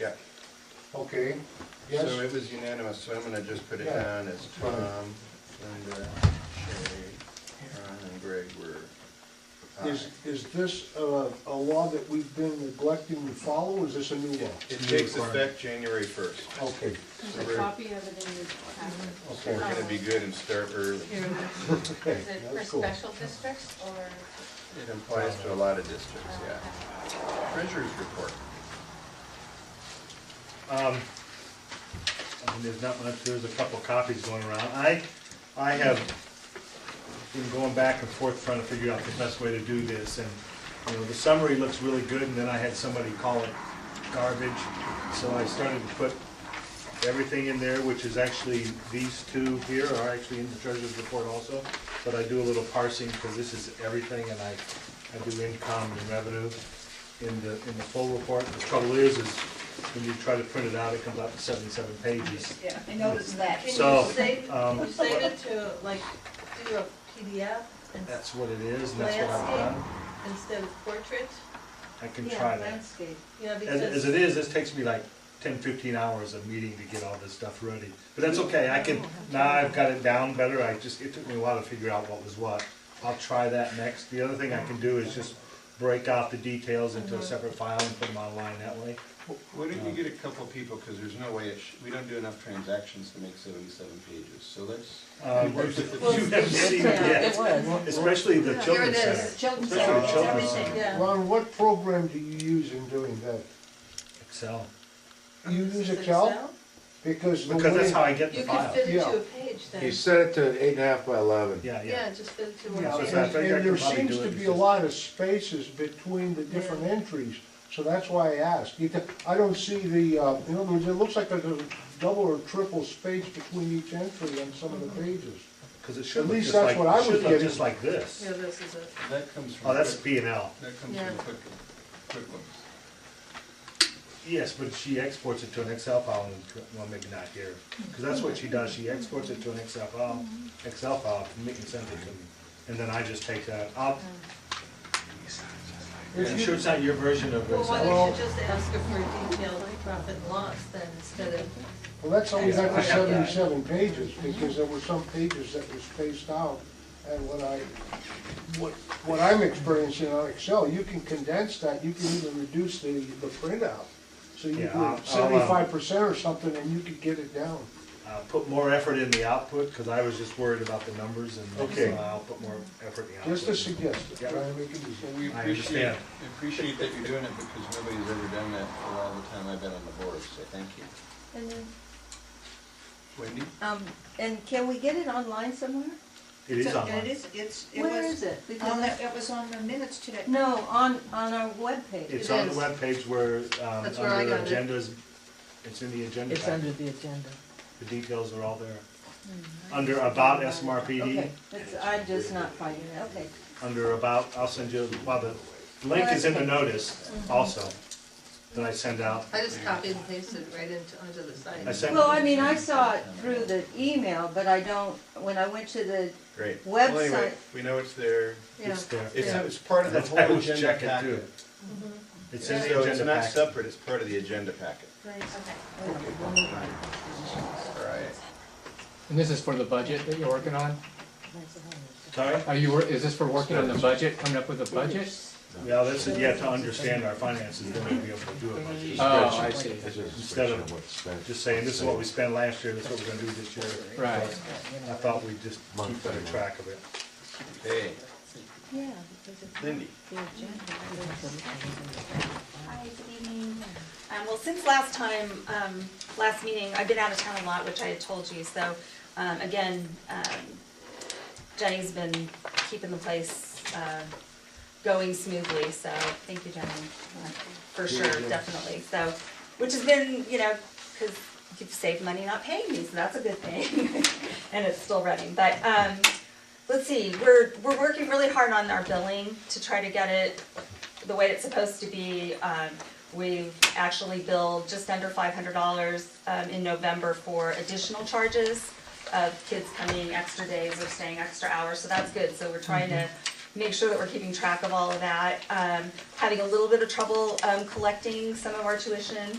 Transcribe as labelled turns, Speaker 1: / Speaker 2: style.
Speaker 1: Yeah,
Speaker 2: Okay,
Speaker 1: so
Speaker 2: yes,
Speaker 1: it was unanimous, so I'm gonna just put it
Speaker 2: Yeah.
Speaker 1: down as Tom, Linda, Shay, Ron, and Greg were uh, aye.
Speaker 2: is, is this a, a law that we've been neglecting to follow, is this a new law?
Speaker 1: It takes effect January first,
Speaker 2: Okay,
Speaker 1: So
Speaker 3: There's
Speaker 1: we're-
Speaker 3: a copy of it in your
Speaker 1: we're
Speaker 2: okay,
Speaker 1: gonna be good and start early.
Speaker 3: packet.
Speaker 2: okay,
Speaker 4: Is it for
Speaker 2: that's cool.
Speaker 4: special districts or? uh,
Speaker 1: It applies to a lot of districts, yeah. Treasurer's report.
Speaker 5: Um, I mean, there's not much, there's a couple copies going around. I, I have been going back and forth trying to figure out the best way to do this, and, you know, the summary looks really good, and then I had somebody call it garbage, so I started to put everything in there, which is actually, these two here are actually in the treasurer's report also, but I do a little parsing, because this is everything, and I, I do income and revenue in the, in the full report. The trouble is, is when you try to print it out, it comes out to seventy-seven pages.
Speaker 6: Yeah, I noticed that.
Speaker 5: So,
Speaker 7: Can you save,
Speaker 5: um,
Speaker 7: can you save it to, like, do a PDF and
Speaker 5: That's what it is, and that's what I've done.
Speaker 7: instead of portrait?
Speaker 5: I can try that.
Speaker 6: Landscape.
Speaker 7: Yeah,
Speaker 5: As, as
Speaker 7: because,
Speaker 5: it is, this takes me like 10, 15 hours of meeting to get all this stuff ready. But that's okay, I can, now I've got it down better, I just, it took me a while to figure out what was what. I'll try that next. The other thing I can do is just break out the details
Speaker 7: Uh-huh.
Speaker 5: into a separate file and put them online that way.
Speaker 1: Why don't you get a couple people, because there's no way, it sh- we don't do enough transactions to make seventy-seven pages, so let's.
Speaker 5: Um,
Speaker 7: Well,
Speaker 5: You haven't seen it yet, especially the children's center.
Speaker 4: Children's
Speaker 5: Especially the children's center.
Speaker 7: yeah,
Speaker 2: Ron, what program do you use in doing that?
Speaker 5: Excel,
Speaker 2: You use
Speaker 7: Does it
Speaker 2: Excel?
Speaker 7: sound?
Speaker 2: Because the
Speaker 5: because that's how
Speaker 2: way,
Speaker 5: I get the
Speaker 7: You could
Speaker 5: file.
Speaker 7: fit it
Speaker 2: Yeah.
Speaker 7: to a page then.
Speaker 8: He set it to eight and a half by eleven.
Speaker 5: Yeah, yeah.
Speaker 7: Yeah, just fit it to
Speaker 5: Yeah, so
Speaker 7: one page.
Speaker 5: it's not-
Speaker 2: and
Speaker 5: I think I
Speaker 2: and there
Speaker 5: could probably
Speaker 2: seems
Speaker 5: do
Speaker 2: to
Speaker 5: it
Speaker 2: be a
Speaker 5: because-
Speaker 2: lot of spaces between the different entries, so that's why I asked. You can- I don't see the, uh, in other words, it looks like there's a double or triple space between each entry on some of the pages.
Speaker 5: Because it should
Speaker 2: At
Speaker 5: look
Speaker 2: least
Speaker 5: just
Speaker 2: that's
Speaker 5: like,
Speaker 2: what I
Speaker 5: it
Speaker 2: was
Speaker 5: should look
Speaker 2: getting.
Speaker 5: just like this.
Speaker 7: Yeah, this is it.
Speaker 1: That comes from.
Speaker 5: Oh, that's
Speaker 1: quick-
Speaker 5: P and L.
Speaker 1: That comes
Speaker 7: Yeah.
Speaker 1: from quick, quick ones.
Speaker 5: Yes, but she exports it to an Excel file, and, well, maybe not here, because that's what she does, she exports it to an Excel file, Excel file, and sends it to me, and then I just take that, I'll, I'm sure it's not your version of
Speaker 7: Well, why
Speaker 5: Excel.
Speaker 7: don't you just ask her for detailed profit and loss then instead of,
Speaker 2: Well, that's how we got
Speaker 5: Yeah, I
Speaker 2: to
Speaker 5: have that.
Speaker 2: seventy-seven pages, because there were some pages that were spaced out. And what I, what, what I'm experiencing on Excel, you can condense that, you can even reduce the, the printout. So you
Speaker 5: Yeah, I'll- I'll,
Speaker 2: can
Speaker 5: um,
Speaker 2: seventy-five percent or something, and you could get it down.
Speaker 5: Uh, put more effort in the output, because I was just worried about the numbers, and
Speaker 2: Okay.
Speaker 5: so I'll put more effort in the
Speaker 2: Just a
Speaker 5: output.
Speaker 2: suggestion,
Speaker 5: Yeah.
Speaker 2: try and make it easy.
Speaker 1: Well, we
Speaker 5: I
Speaker 1: appreciate,
Speaker 5: understand.
Speaker 1: appreciate that you're doing it because nobody's ever done that for all the time I've been on the board, so thank you.
Speaker 4: And then,
Speaker 1: Wendy?
Speaker 9: Um, and can we get it online somewhere?
Speaker 5: It is
Speaker 6: So- and
Speaker 5: online,
Speaker 6: It is, it's, it
Speaker 4: where is
Speaker 6: was,
Speaker 4: it?
Speaker 6: on
Speaker 4: Because
Speaker 6: the- it was on the minutes today.
Speaker 9: No, on, on our webpage.
Speaker 5: it's
Speaker 4: it
Speaker 5: on the
Speaker 4: is.
Speaker 5: webpage where, um,
Speaker 7: That's where I
Speaker 5: under
Speaker 7: got it.
Speaker 5: agendas, it's in the agenda
Speaker 10: It's
Speaker 5: pack,
Speaker 10: under the agenda.
Speaker 5: the details are all there. Under about
Speaker 9: Okay,
Speaker 5: SMRPD,
Speaker 9: it's, I'm just not finding it, okay.
Speaker 5: under about, I'll send you, well, the link is in the notice
Speaker 9: Mm-hmm.
Speaker 5: also that I send out.
Speaker 7: I just copied and pasted it right into, onto the site.
Speaker 5: I sent,
Speaker 9: Well, I mean, I saw it through the email, but I don't, when I went to the,
Speaker 1: Great. Well, anyway,
Speaker 9: Website.
Speaker 1: We know it's there.
Speaker 7: Yeah,
Speaker 5: it's there.
Speaker 1: It's,
Speaker 7: Yeah.
Speaker 1: it's part of the
Speaker 5: That's
Speaker 1: whole
Speaker 5: why I was
Speaker 1: agenda
Speaker 5: checking too. Mm-hmm.
Speaker 1: packet.
Speaker 5: It's in the
Speaker 1: So it's
Speaker 5: agenda
Speaker 1: not
Speaker 5: packet.
Speaker 1: separate, it's part of the agenda packet.
Speaker 7: right, okay.
Speaker 1: All right.
Speaker 11: And this is for the budget that you're working on?
Speaker 5: Sorry?
Speaker 11: Are you, wor- is this for working on the budget, coming up with a budget?
Speaker 5: Yeah, that's, you have to understand our finances, then we'll be able to do a budget.
Speaker 11: Oh, I see,
Speaker 5: Instead of Just saying, this is what we spent last year, this is what we're gonna do this year.
Speaker 11: right.
Speaker 5: I thought we'd just keep better track of it.
Speaker 1: Hey,
Speaker 4: yeah, because of
Speaker 1: Cindy.
Speaker 4: the agenda.
Speaker 6: Hi, good evening. Um, well, since last time, um, last meeting, I've been out of town a lot, which I had told you, so, um, again, um, Jenny's been keeping the place, uh, going smoothly, so thank you, Jenny, uh, for sure, definitely, so, which has been, you know, cause you've saved money not paying me, so that's a good thing, and it's still running, but, um, let's see, we're, we're working really hard on our billing to try to get it the way it's supposed to be. Um, we've actually billed just under five hundred dollars, um, in November for additional charges of kids coming extra days or staying extra hours, so that's good. So we're trying to make sure that we're keeping track of all of that. Um, having a little bit of trouble, um, collecting some of our tuition,